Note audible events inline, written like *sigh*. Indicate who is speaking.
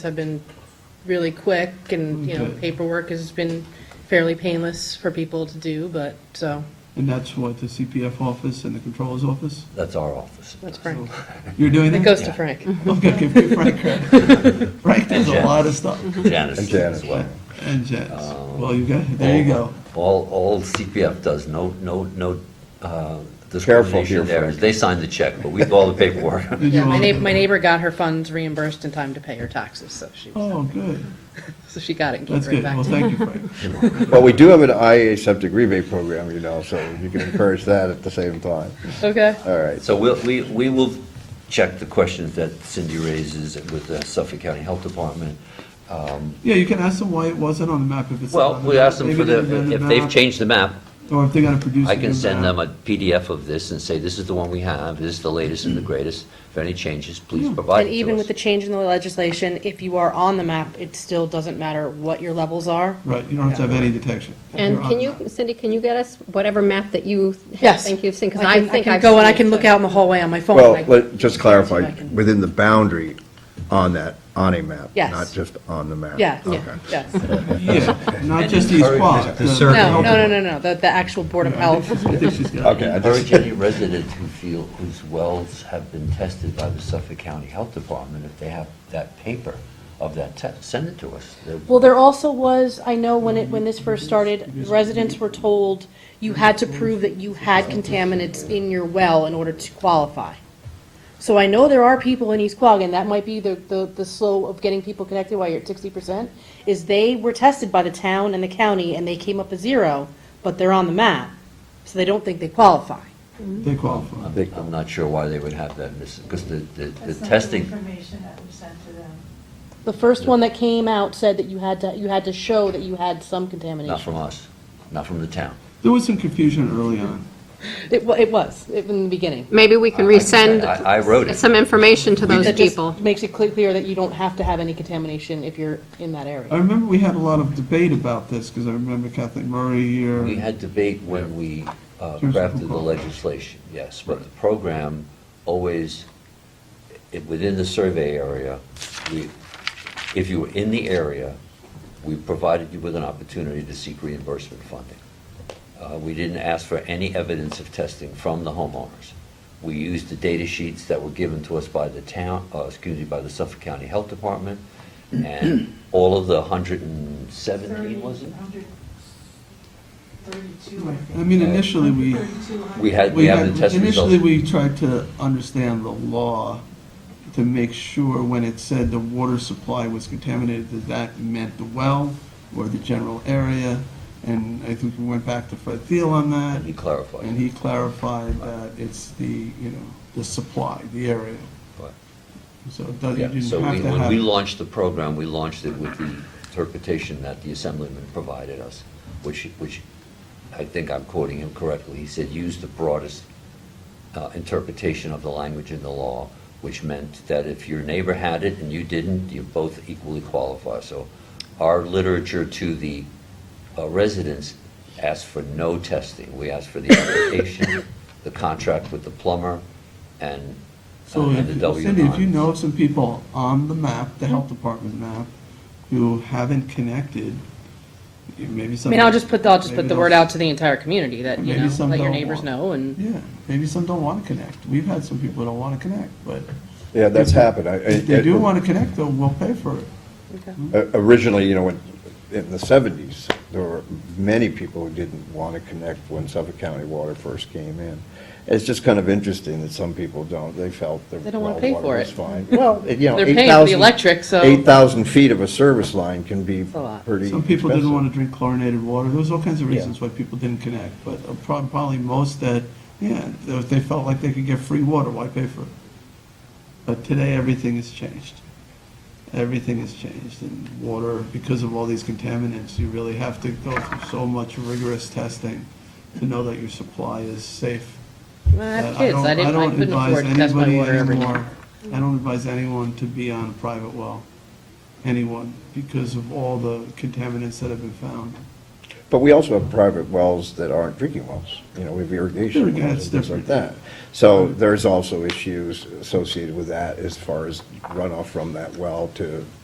Speaker 1: have been really quick and, you know,
Speaker 2: Okay.
Speaker 1: paperwork has been fairly painless for people to do, but, so,
Speaker 2: And that's what, the CPF office and the controller's
Speaker 3: *laughs*
Speaker 2: office?
Speaker 3: That's our office.
Speaker 1: that's Frank.
Speaker 2: You're doing that?
Speaker 1: It goes to Frank.
Speaker 2: Okay, give
Speaker 1: *laughs*
Speaker 2: me Frank credit. Frank does a lot of stuff.
Speaker 3: Janice
Speaker 4: And
Speaker 3: does
Speaker 4: Janice.
Speaker 3: as well.
Speaker 2: And Jets.
Speaker 3: Oh.
Speaker 2: Well, you got, there you go.
Speaker 3: All, all CPF does, no, no, no uh,
Speaker 4: Careful here,
Speaker 3: discrimination there. is
Speaker 4: Frank.
Speaker 3: They sign the check, but we do all the
Speaker 4: *laughs*
Speaker 3: paperwork.
Speaker 2: Did
Speaker 1: Yeah,
Speaker 2: you
Speaker 1: my
Speaker 2: all-
Speaker 1: neighbor, my neighbor got her funds reimbursed in time to pay her taxes, so she,
Speaker 2: Oh, good.
Speaker 1: so she got it and gave
Speaker 2: That's
Speaker 1: it right
Speaker 2: good.
Speaker 1: back
Speaker 2: Well,
Speaker 1: to me.
Speaker 2: thank you,
Speaker 3: *laughs*
Speaker 2: Frank.
Speaker 4: Well, we do have an IA septic rebate program, you know, so you can encourage that at the same time.
Speaker 1: Okay,
Speaker 4: All right.
Speaker 3: So we'll, we, we will check the questions that Cindy raises with the Suffolk County Health Department.
Speaker 2: Yeah, you can ask them why it wasn't on the map if it's. not
Speaker 3: Well,
Speaker 2: on the
Speaker 3: we
Speaker 2: map.
Speaker 3: asked them
Speaker 2: Maybe
Speaker 3: for
Speaker 2: they didn't
Speaker 3: the,
Speaker 2: do
Speaker 3: if they've
Speaker 2: map,
Speaker 3: changed the map,
Speaker 2: Or if they're gonna produce.
Speaker 3: I
Speaker 2: a
Speaker 3: can
Speaker 2: new
Speaker 3: send
Speaker 2: map.
Speaker 3: them a PDF of this and say, this is the one we have, this is the latest and the greatest. If any changes,
Speaker 2: Hmm.
Speaker 3: please provide it
Speaker 1: and
Speaker 3: to us.
Speaker 1: even with the change in the legislation, if you are on the map, it still doesn't matter what your levels are.
Speaker 2: Right, you don't have to have any detection.
Speaker 5: And
Speaker 2: You're on
Speaker 5: can
Speaker 2: the
Speaker 5: you,
Speaker 2: map.
Speaker 5: Cindy, can you get us whatever map that you
Speaker 1: Yes.
Speaker 5: think you've seen? Because
Speaker 1: I
Speaker 5: I
Speaker 1: can-
Speaker 5: think
Speaker 1: I
Speaker 5: I've
Speaker 1: can go and I
Speaker 5: seen it,
Speaker 1: can look
Speaker 5: but-
Speaker 1: out in the hallway on my phone. and I
Speaker 4: Well,
Speaker 1: can-
Speaker 4: let, just clarify,
Speaker 1: I can-
Speaker 4: within the boundary on that, on a map,
Speaker 1: Yes.
Speaker 4: not just on the map.
Speaker 1: Yeah,
Speaker 4: Okay.
Speaker 1: yes.
Speaker 2: Yeah,
Speaker 3: *laughs*
Speaker 2: not just East
Speaker 3: encourage
Speaker 2: Quad.
Speaker 6: the
Speaker 2: the-
Speaker 6: circle.
Speaker 1: No, no, no, no, no, the, the actual Board of
Speaker 2: I think
Speaker 1: Health.
Speaker 2: she's- I think she's got it.
Speaker 4: Okay, I just,
Speaker 3: Encourage any residents who feel, whose wells have been tested by the Suffolk County Health Department, if they have that paper of that test, send it to us. They'll-
Speaker 1: Well, there also was, I know when it, when this first started, residents were told you had to prove that you had contaminants in your well in order to qualify. So I know there are people in East Quogue, and that might be the, the, the slow of getting people connected while you're at sixty percent, is they were tested by the town and the county, and they came up a zero, but they're on the map, so they don't think they qualify.
Speaker 2: They qualify.
Speaker 3: I'm I'm not sure why they would have that, because the, the the
Speaker 7: That's not
Speaker 3: testing,
Speaker 7: information that we sent to them.
Speaker 1: The first one that came out said that you had to, you had to show that you had some contamination.
Speaker 3: not from us, not from the town.
Speaker 2: There was some confusion early on.
Speaker 1: It, wa- it was, it- in the beginning.
Speaker 5: Maybe we can
Speaker 3: I- I can say-
Speaker 5: resend
Speaker 3: I- I wrote it.
Speaker 5: some information to those
Speaker 1: That just
Speaker 5: people.
Speaker 1: Makes it cle- clear that you don't have to have any contamination if you're in that
Speaker 2: I
Speaker 1: area.
Speaker 2: remember we had a lot of debate about this, because I remember Kathleen Murray here.
Speaker 3: We had debate when we uh,
Speaker 2: Terms of
Speaker 3: crafted the
Speaker 2: who-
Speaker 3: legislation, yes, but the program always, i- within the survey area, we, if you were in the area, we provided you with an opportunity to seek reimbursement funding. Uh, We didn't ask for any evidence of testing from the homeowners. We used the data sheets that were given to us by the town, uh, excuse me, by the Suffolk County Health Department,
Speaker 2: *clears throat*
Speaker 3: and all of the 117, was it?
Speaker 7: 132, I think.
Speaker 2: I mean, initially, we-
Speaker 7: 132.
Speaker 3: We had- we have the test results.
Speaker 2: Initially, we tried to understand the law to make sure when it said the water supply was contaminated, that that meant the well or the general area. And I think we went back to Fred Thiel on that,
Speaker 3: Let me clarify.
Speaker 2: and he clarified that it's the, you know, the supply, the area.
Speaker 3: But-
Speaker 2: So it doesn't- you
Speaker 3: Yeah,
Speaker 2: didn't
Speaker 3: so
Speaker 2: have
Speaker 3: we-
Speaker 2: to
Speaker 3: when we
Speaker 2: have-
Speaker 3: launched the program, we launched it with the interpretation that the Assemblyman provided us, which, which I think I'm quoting him correctly. He said, use the broadest uh, interpretation of the language in the law, which meant that if your neighbor had it and you didn't, you both equally qualify. So our literature to the uh, residents asked for no testing. We asked for the
Speaker 2: *coughs*
Speaker 3: application, the contract with the plumber, and
Speaker 2: So
Speaker 3: and the
Speaker 2: if-
Speaker 3: W9.
Speaker 2: Cindy, if you know of some people on the map, the health department map, who haven't connected, you- maybe
Speaker 1: I
Speaker 2: some.
Speaker 1: mean, I'll just put, I'll just
Speaker 2: maybe
Speaker 1: put the
Speaker 2: they'll-
Speaker 1: word out to the entire community that, you
Speaker 2: Maybe
Speaker 1: know,
Speaker 2: some
Speaker 1: let your
Speaker 2: don't
Speaker 1: neighbors
Speaker 2: want-
Speaker 1: know and,
Speaker 2: Yeah, maybe some don't want to connect. We've had some people don't want to connect, but
Speaker 4: yeah, that's happened. I- I-
Speaker 2: if they do want to connect, though, we'll pay for it.
Speaker 4: Uh, Originally, you know, when- in the 70s, there were many people who didn't want to connect when Suffolk County Water first came in. It's just kind of interesting that some people don't. They felt that,
Speaker 1: They don't wanna
Speaker 4: well,
Speaker 1: pay for
Speaker 4: water was
Speaker 1: it.
Speaker 4: fine.
Speaker 1: *laughs*
Speaker 4: Well, it- you know,
Speaker 1: They're
Speaker 4: 8,000...
Speaker 1: paying for the electric, so-
Speaker 4: 8,000 feet of a service line can be
Speaker 1: a lot.
Speaker 4: pretty
Speaker 2: Some people didn't
Speaker 4: expensive.
Speaker 2: want to drink chlorinated water. There was all kinds of
Speaker 4: Yeah.
Speaker 2: reasons why people didn't connect, but uh, prob- probably most that, yeah, if they felt like they could get free water, why pay for it? But today, everything has changed. Everything has changed, and water, because of all these contaminants, you really have to go through so much rigorous testing to know that your supply is safe.
Speaker 1: I have
Speaker 2: Uh,
Speaker 1: kids,
Speaker 2: don't-
Speaker 1: I didn't, I
Speaker 2: don't
Speaker 1: couldn't
Speaker 2: advise
Speaker 1: afford to test my
Speaker 2: anybody
Speaker 1: water every
Speaker 2: anymore-
Speaker 1: day.
Speaker 2: I don't advise anyone to be on a private well, anyone, because of all the contaminants that have been found.
Speaker 4: But we also have private wells that aren't drinking wells. You know, we have irrigation
Speaker 2: Sure,
Speaker 4: wells
Speaker 2: yeah,
Speaker 4: and
Speaker 2: it's
Speaker 4: things like
Speaker 2: different.
Speaker 4: that. So there's also issues associated with that as far as runoff from that well to